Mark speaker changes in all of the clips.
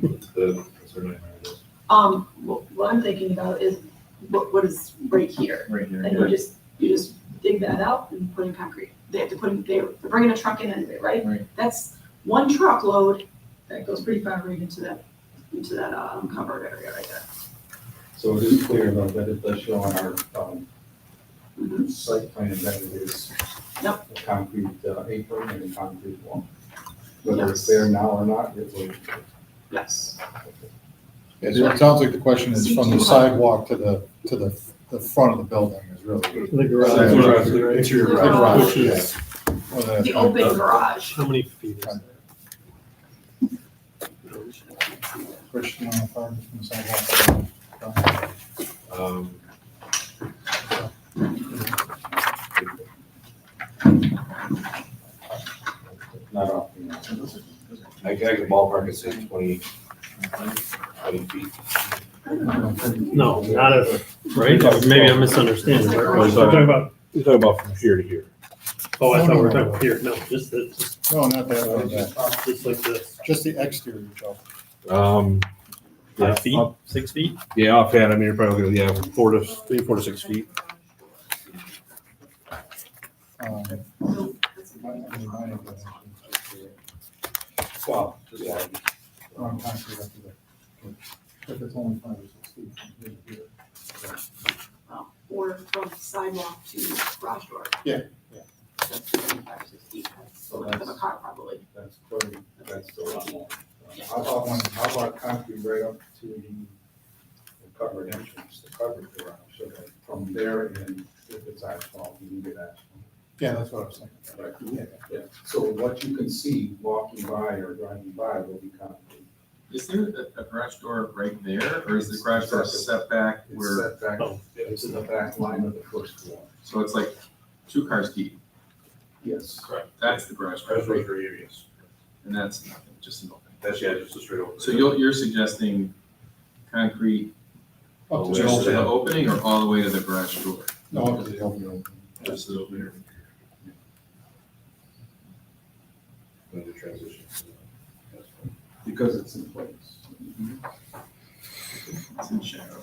Speaker 1: The, that's her nightmare, I guess.
Speaker 2: Um, what, what I'm thinking about is what, what is right here?
Speaker 1: Right
Speaker 2: And you just, you just dig that out and put in concrete. They have to put in, they're they're bringing a truck in anyway, right?
Speaker 1: Right.
Speaker 2: That's one truckload that goes pretty far right into that, into that, um, covered area right there.
Speaker 1: So it is clear though that it does show on our, um,
Speaker 2: Mhm.
Speaker 1: site plan that it is
Speaker 2: Yep.
Speaker 1: a concrete uh, apron and a concrete wall. Whether it's
Speaker 2: Yes.
Speaker 1: there now or not, it will.
Speaker 2: Yes,
Speaker 3: Yeah, so it sounds like the question is from the
Speaker 2: CT.
Speaker 3: sidewalk to the, to the, the front of the building is really.
Speaker 4: The
Speaker 3: That's what I
Speaker 4: garage.
Speaker 3: was-
Speaker 4: right?
Speaker 2: The
Speaker 3: right,
Speaker 2: garage.
Speaker 3: which is-
Speaker 2: the open garage.
Speaker 4: How many feet is that?
Speaker 3: Question on the farm from the sidewalk.
Speaker 1: Um, Not often. I can, I can ballpark it, say twenty, twenty feet.
Speaker 4: No, not a, right? Maybe I'm misunderstanding. right?
Speaker 2: We're
Speaker 4: We're talking about,
Speaker 5: You're talking about from here to here.
Speaker 4: oh, I thought we were talking about here. No, just the, just-
Speaker 3: No, not that, way, yeah.
Speaker 4: just like this.
Speaker 3: just the exterior, Joe.
Speaker 5: Um, yeah, off-
Speaker 4: six feet?
Speaker 5: Yeah, offhand, I mean, you're probably, looking at, yeah, four to, three, four to six feet.
Speaker 3: Um,
Speaker 2: So
Speaker 3: my- I mean, my definition is exterior,
Speaker 1: Wow. Yeah,
Speaker 3: on concrete up to the- If it's only five or six feet from here to here.
Speaker 2: um, Or from sidewalk to garage door.
Speaker 3: Yeah, yeah.
Speaker 2: That's five, six feet, that's a length of a car probably.
Speaker 3: That's pretty, that's a lot more. How about one, how about concrete right up to the covered entrance, the covered garage, so that from there and if it's asphalt, you can get asphalt. Yeah, that's what I was thinking. Right, yeah, yeah. So what you can see walking by or driving by will be concrete.
Speaker 6: Is there a, a garage door right there, or is the garage door set back
Speaker 3: It's
Speaker 6: where,
Speaker 3: set back,
Speaker 4: Oh.
Speaker 3: it's in the back line of the first wall.
Speaker 6: so it's like two cars deep?
Speaker 3: Yes.
Speaker 6: Correct. That's the garage door,
Speaker 1: That's what your area is.
Speaker 6: and that's nothing, just an open.
Speaker 1: That's, yeah, just a straight over.
Speaker 6: So you're, you're suggesting concrete
Speaker 3: Up to
Speaker 6: just
Speaker 3: the
Speaker 6: to
Speaker 3: open.
Speaker 6: the opening or all the way to the garage door?
Speaker 3: No, up to the open.
Speaker 6: Just to the opening.
Speaker 1: Another transition. That's fine.
Speaker 3: Because it's in place.
Speaker 6: It's in shadow.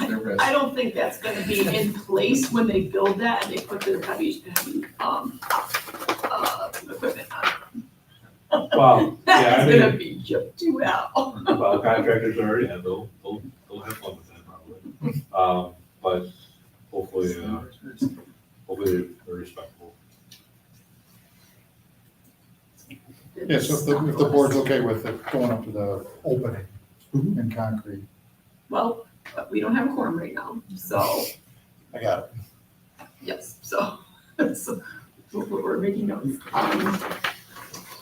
Speaker 6: There was-
Speaker 2: I don't think that's gonna be in place when they build that and they put the heavy, heavy, um, uh, equipment on.
Speaker 1: Well, yeah, I
Speaker 2: That's
Speaker 1: mean-
Speaker 2: gonna be jumped too out.
Speaker 1: Well, contractors already have, they'll, they'll, they'll have fun with that probably. Um, but hopefully, uh, hopefully they're- they're respectful.
Speaker 3: Yeah, so if the, if the board's okay with it going up to the opening in concrete.
Speaker 2: Well, but we don't have a quorum right now, so,
Speaker 3: I got it.
Speaker 2: yes, so, so, we're, we're making notes. Um,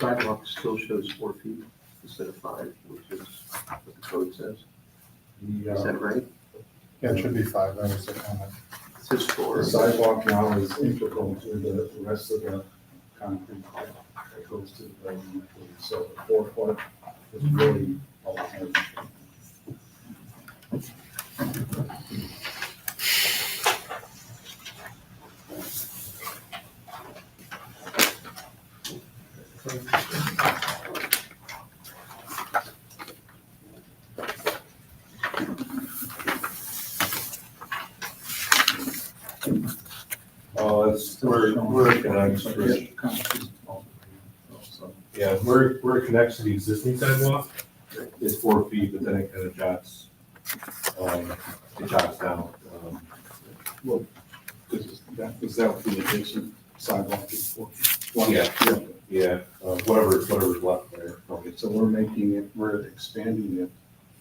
Speaker 7: sidewalk still shows four feet instead of five, which is what the code says.
Speaker 3: The,
Speaker 7: Is
Speaker 3: uh,
Speaker 7: that right?
Speaker 3: Yeah, it should be five, that was the comment.
Speaker 7: It says four.
Speaker 3: The sidewalk now is integral to the rest of the concrete pipe that goes to the building. So the four foot is
Speaker 7: Mm-hmm.
Speaker 3: really all it has.
Speaker 1: Oh, it's, where, where it connects, where-
Speaker 3: Concrete. Oh, So,
Speaker 1: yeah, where, where it connects to the existing sidewalk is four feet, but then it kind of jots, um, it jots down. um,
Speaker 3: This is, that, is that the adjacent sidewalk is four feet? One-
Speaker 1: Yeah. Yeah, uh, whatever, whatever's left there.
Speaker 3: Okay, so we're making it, we're expanding it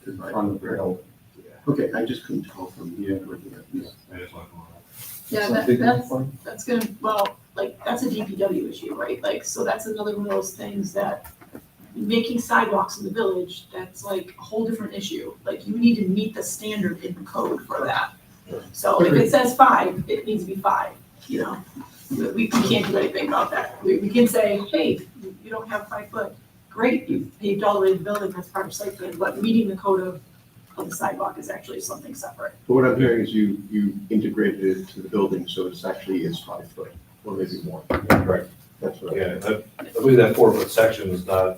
Speaker 3: to the front of the building.
Speaker 1: Yeah,
Speaker 7: Okay, I just couldn't tell from here. looking at this.
Speaker 1: I just want to.
Speaker 2: Yeah,
Speaker 3: Is that
Speaker 2: that,
Speaker 3: big
Speaker 2: that's,
Speaker 3: enough for you?
Speaker 2: that's gonna, well, like, that's a DPW issue, right? Like, so that's another one of those things that, making sidewalks in the village, that's like a whole different issue. Like, you need to meet the standard in the code for that. So if it says five, it needs to be five, you know? We, we can't do anything about that. We, we can say, hey, you you don't have five foot, great, you paved all the way to the building, that's part of site plan, but meeting the code of, of the sidewalk is actually something separate.
Speaker 7: But what I'm hearing is you, you integrated it to the building, so it's actually is five foot, or maybe more.
Speaker 1: Right.
Speaker 7: That's what I-
Speaker 1: Yeah, that- I believe that four foot section is not